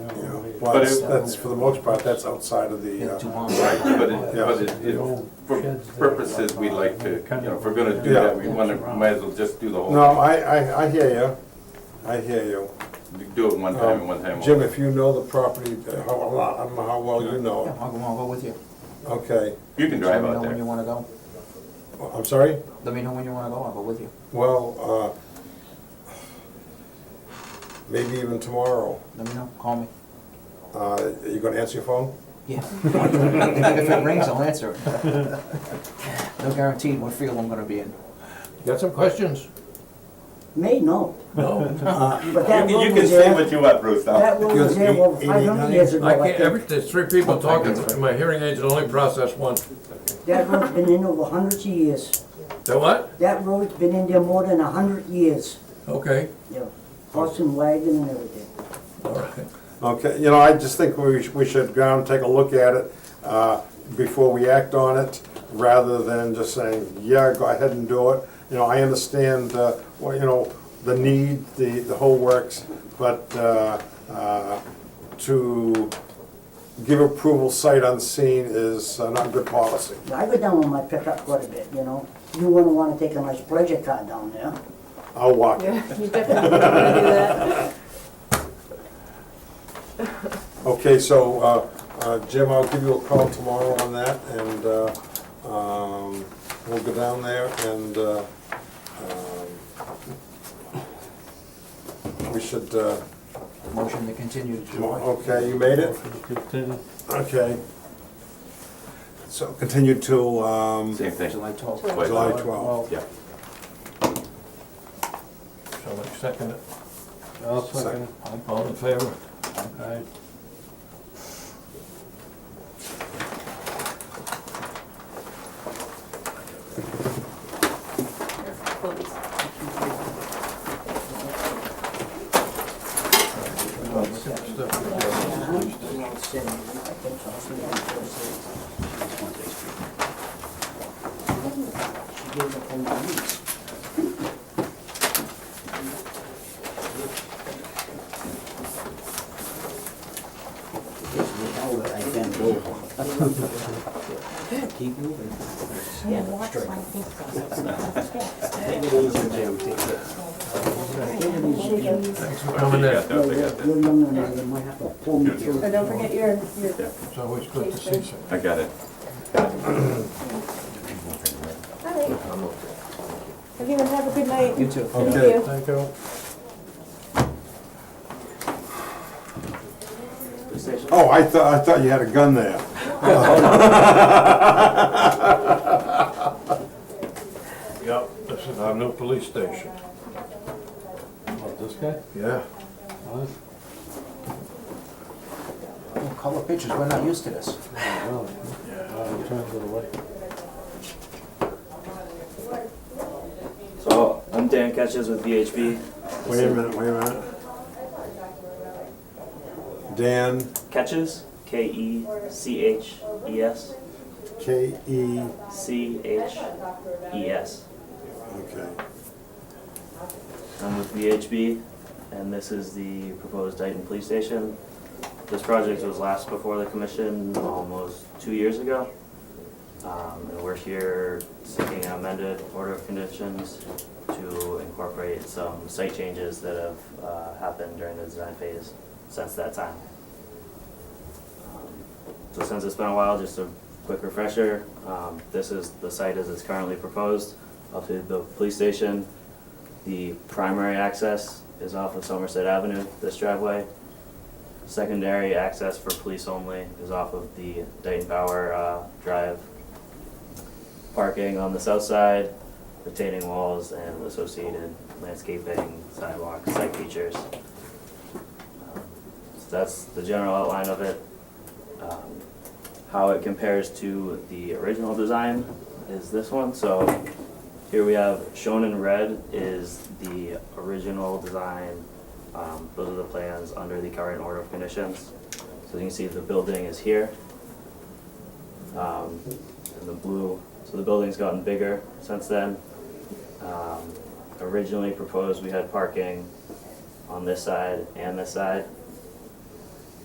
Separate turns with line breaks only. Well,
But
that's,
it-
that's, for the most part, that's outside of the,
Yeah, two
uh,
months.
Right, but it,
Yeah.
but it, it, for purposes, we like to, you know, if we're gonna do that, we wanna, might as well just do the
no,
whole,
I, I, I hear you, I hear you.
do it one time and one time
Um,
only.
Jim, if you know the property, uh, how, a lot- I don't know how well you know
Yeah,
it,
I'll go, I'll go with you.
okay,
You can drive out
Let me know when you
there.
wanna go.
I'm sorry?
Let me know when you wanna go, I'll go with you.
Well, uh, maybe even tomorrow,
Let me know, call me.
uh, are you gonna answer your phone?
Yeah. If it rings, I'll answer it. No guarantee what field I'm gonna be in.
Got some questions?
May, no. No. But
You
that
can-
road
you can
was
say
there,
what you want, Bruce, now.
that road was there over
Because
five hundred years ago,
I
I
can't, every,
think.
there's three people talking, my hearing aids will only process one.
That road's been in over hundreds of years.
The what?
That road's been in there more than a hundred years,
Okay,
yeah. Horse and wagon and everything.
all right.
Okay, you know, I just think we, sh- we should go and take a look at it, uh, before we act on it, rather than just saying, yeah, go ahead and do it. You know, I understand, uh, well, you know, the need, the, the whole works, but, uh, uh, to give approval sight unseen is uh, not good policy.
Now, I go down with my pickup quite a bit, you know. You wouldn't wanna take a nice pleasure car down there.
I'll walk it.
Yeah, you definitely want to do that.
Okay, so, uh, uh, Jim, I'll give you a call tomorrow on that, and, uh, um, we'll go down there and, uh, um, we should, uh,
Motion to continue to
mo-
July.
okay, you made it? Okay. So continue till, um,
Same thing,
July twelfth.
July
July twelfth.
yeah.
So like second it,
I'll second it.
all in favor?
Aye.
Oh,
Please.
Keep moving.
Yeah, watch my fingers.
Thanks for coming
They
in.
got that, they got that.
And don't forget your, your
It's always good to see some.
I got it.
All right. Everyone have a good night.
You too.
Thank
Okay.
you.
Thank you.
Oh, I thought, I thought you had a gun there.
Yep, this is our new police station.
What, this guy?
Yeah.
What?
Oh, Color pictures, we're not used to this.
Oh, really? Wow, he turns it away.
So, I'm Dan Ketchens with VHB.
Wait a minute, wait a minute. Dan,
Ketches, K E C H E S,
K E,
C H E S.
okay.
I'm with VHB, and this is the proposed Dayton Police Station. This project was last before the commission almost two years ago. Um, and we're here seeking an amended order of conditions to incorporate some site changes that have, uh, happened during the design phase since that time. So since it's been a while, just a quick refresher, um, this is the site as it's currently proposed up to the police station. The primary access is off of Somerset Avenue, this driveway. Secondary access for police only is off of the Dayton Bauer uh, Drive. Parking on the south side, retaining walls and associated landscaping, sidewalks, site features. So that's the general outline of it. Um, How it compares to the original design is this one, so here we have, shown in red is the original design. Um, Those are the plans under the current order of conditions. So you can see the building is here. Um, And the blue, so the building's gotten bigger since then. Um, Originally proposed, we had parking on this side and this side.